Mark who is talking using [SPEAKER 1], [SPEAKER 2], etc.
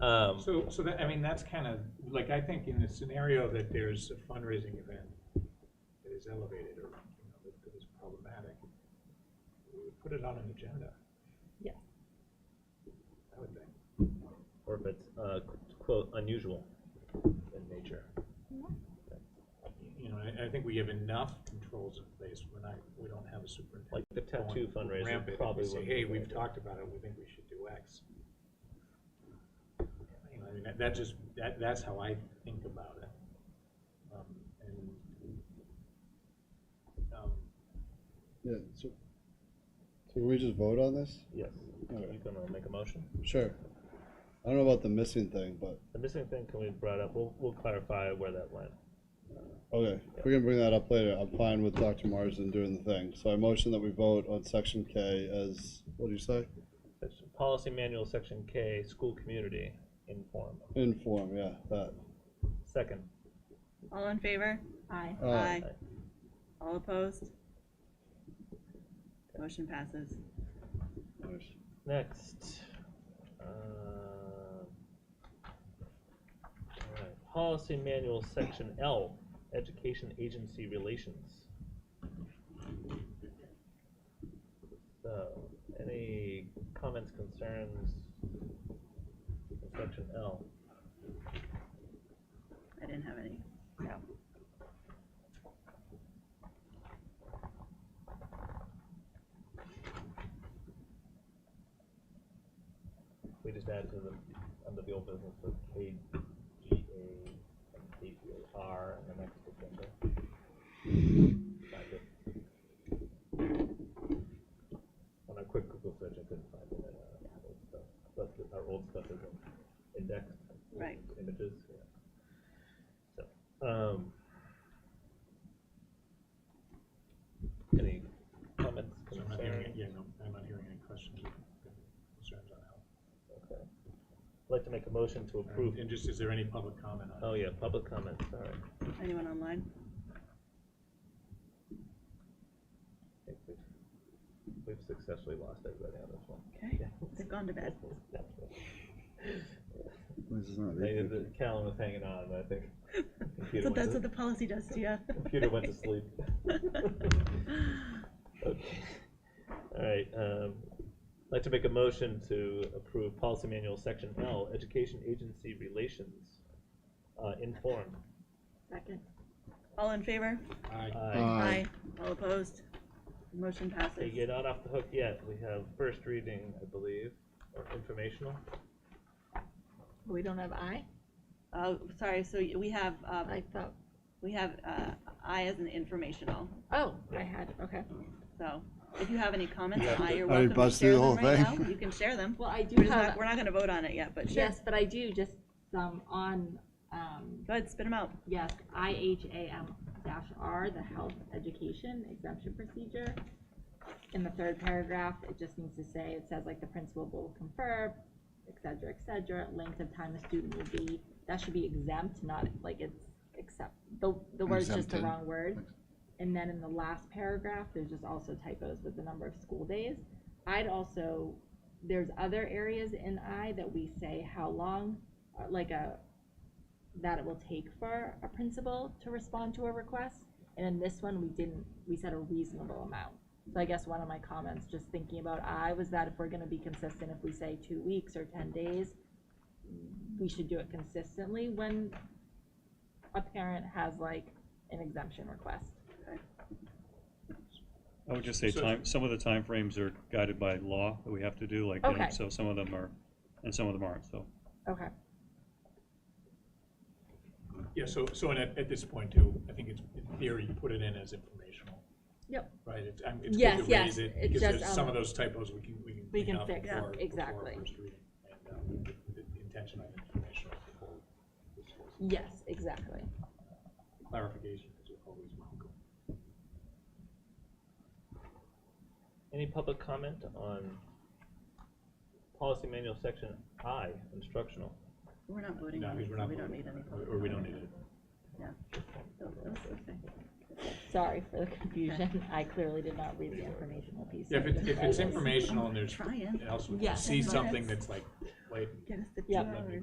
[SPEAKER 1] Um,
[SPEAKER 2] So, so that, I mean, that's kind of, like, I think in the scenario that there's a fundraising event that is elevated or, you know, that- that is problematic, we would put it on an agenda.
[SPEAKER 3] Yeah.
[SPEAKER 2] I would think.
[SPEAKER 1] or if it's, uh, quote, unusual in nature.
[SPEAKER 2] You know, I, I think we have enough controls in place. We're not, we don't have a superintendent.
[SPEAKER 1] Like the tattoo
[SPEAKER 2] going
[SPEAKER 1] fundraiser
[SPEAKER 2] rampant and we
[SPEAKER 1] probably
[SPEAKER 2] Say,
[SPEAKER 1] wouldn't
[SPEAKER 2] hey,
[SPEAKER 1] be
[SPEAKER 2] we've
[SPEAKER 1] good.
[SPEAKER 2] talked about it. We think we should do X. You know, I mean, that, that just, that, that's how I think about it. Um, and, um,
[SPEAKER 4] Yeah, so, so can we just vote on this?
[SPEAKER 1] Yes.
[SPEAKER 4] Okay.
[SPEAKER 1] You gonna make a motion?
[SPEAKER 4] Sure. I don't know about the missing thing, but,
[SPEAKER 1] The missing thing can we brought up, we'll, we'll clarify where that went.
[SPEAKER 4] okay, if we can bring that up later, I'm fine with Dr. Marsden doing the thing. So I motion that we vote on section K as, what do you say?
[SPEAKER 1] Section- Policy manual, section K, school community inform.
[SPEAKER 4] Inform, yeah, that.
[SPEAKER 1] Second,
[SPEAKER 5] All in favor?
[SPEAKER 3] Aye.
[SPEAKER 4] Aye.
[SPEAKER 1] Aye.
[SPEAKER 5] All opposed? Motion passes.
[SPEAKER 4] Nice.
[SPEAKER 1] next. uh, alright, Policy manual, section L, education agency relations. So, any comments, concerns? on Section L.
[SPEAKER 5] I didn't have any. No.
[SPEAKER 1] We just add to the, under the old business, the KGA and KGAR and the next agenda. Find it. On a quick Google search, I couldn't find it, uh, old stuff, but the- our old stuff is in indexed.
[SPEAKER 5] Right.
[SPEAKER 1] Images, yeah. So, um. Any comments,
[SPEAKER 2] so I'm not hearing,
[SPEAKER 1] concerns?
[SPEAKER 2] yeah, no, I'm not hearing any questions or concerns on that.
[SPEAKER 1] Okay. I'd like to make a motion to approve
[SPEAKER 2] And just, is there any public comment on it?
[SPEAKER 1] Oh, yeah, public comments, all right.
[SPEAKER 5] Anyone online?
[SPEAKER 1] I think we've- We've successfully lost everybody on this one.
[SPEAKER 5] Okay, they've gone to bed.
[SPEAKER 4] This is not
[SPEAKER 1] They-
[SPEAKER 4] recorded.
[SPEAKER 1] the- Callan was hanging on, but I think. computer
[SPEAKER 5] So
[SPEAKER 1] went
[SPEAKER 5] that's
[SPEAKER 1] to-
[SPEAKER 5] what the policy does to you.
[SPEAKER 1] Computer went to sleep. Okay. All right, um, I'd like to make a motion to approve policy manual, section L, education agency relations, uh, informed.
[SPEAKER 3] Second.
[SPEAKER 5] All in favor?
[SPEAKER 1] Uh,
[SPEAKER 2] Aye.
[SPEAKER 1] Aye.
[SPEAKER 4] Aye.
[SPEAKER 5] All opposed? Motion
[SPEAKER 1] Okay,
[SPEAKER 5] passes.
[SPEAKER 1] you're not off the hook yet, we have first reading, I believe, or informational.
[SPEAKER 3] We don't have I?
[SPEAKER 5] Oh, sorry, so y- we have, uh,
[SPEAKER 3] I thought,
[SPEAKER 5] we have, uh, I as an informational.
[SPEAKER 3] oh, I had, okay.
[SPEAKER 5] So if you have any comments
[SPEAKER 1] Yeah.
[SPEAKER 5] on I, you're
[SPEAKER 4] I
[SPEAKER 5] welcome to
[SPEAKER 4] buzzed through
[SPEAKER 5] share
[SPEAKER 4] the whole
[SPEAKER 5] them right now.
[SPEAKER 4] thing.
[SPEAKER 5] You can share them.
[SPEAKER 3] Well, I do
[SPEAKER 5] We're just not,
[SPEAKER 3] have,
[SPEAKER 5] we're not gonna vote on it yet, but sure.
[SPEAKER 3] yes, but I do, just, um, on, um,
[SPEAKER 5] Go ahead, spit them out.
[SPEAKER 3] yes, IHAM dash R, the health education exemption procedure. In the third paragraph, it just needs to say, it says like the principal will confer, et cetera, et cetera, length of time a student will be, that should be exempt, not like it's except, the, the word's just the
[SPEAKER 4] Exempted.
[SPEAKER 3] wrong word. And then in the last paragraph, there's just also typos with the number of school days. I'd also, there's other areas in I that we say how long, uh, like a, that it will take for a principal to respond to a request. And in this one, we didn't, we said a reasonable amount. So I guess one of my comments, just thinking about I, was that if we're gonna be consistent, if we say two weeks or ten days, we should do it consistently when a parent has like an exemption request.
[SPEAKER 6] I would just say
[SPEAKER 2] So-
[SPEAKER 6] time, some of the timeframes are guided by law that we have to do, like, you know,
[SPEAKER 3] Okay.
[SPEAKER 6] so some of them are, and some of them aren't, so.
[SPEAKER 3] Okay.
[SPEAKER 2] Yeah, so, so and at, at this point too, I think it's, in theory, you put it in as informational.
[SPEAKER 3] Yep.
[SPEAKER 2] Right, it's, I'm, it's good
[SPEAKER 3] Yes,
[SPEAKER 2] to
[SPEAKER 3] yes,
[SPEAKER 2] raise it,
[SPEAKER 3] it's
[SPEAKER 2] because
[SPEAKER 3] just,
[SPEAKER 2] there's some
[SPEAKER 3] um,
[SPEAKER 2] of those typos we can, we can.
[SPEAKER 3] we
[SPEAKER 2] clean
[SPEAKER 3] can
[SPEAKER 2] up
[SPEAKER 3] fix,
[SPEAKER 2] before-
[SPEAKER 3] yeah,
[SPEAKER 2] before
[SPEAKER 3] exactly.
[SPEAKER 2] first reading. And, um, the- the- the Intention of informational before this was-
[SPEAKER 3] Yes, exactly.
[SPEAKER 2] clarification is always welcome.
[SPEAKER 1] Any public comment on policy manual section I, instructional?
[SPEAKER 5] We're not voting
[SPEAKER 2] No,
[SPEAKER 5] on
[SPEAKER 2] because
[SPEAKER 5] it,
[SPEAKER 2] we're
[SPEAKER 5] so
[SPEAKER 2] not
[SPEAKER 5] we don't
[SPEAKER 2] voting
[SPEAKER 5] need any.
[SPEAKER 2] Or- Or we don't need it.
[SPEAKER 5] Oh, okay.
[SPEAKER 3] Sorry for the confusion. I clearly did not read the informational piece.
[SPEAKER 2] If it's, if it's informational and there's,
[SPEAKER 5] Trying.
[SPEAKER 2] and also
[SPEAKER 3] Yeah.
[SPEAKER 2] see something that's like, like,
[SPEAKER 5] Get us the two
[SPEAKER 3] Yeah.
[SPEAKER 5] hours.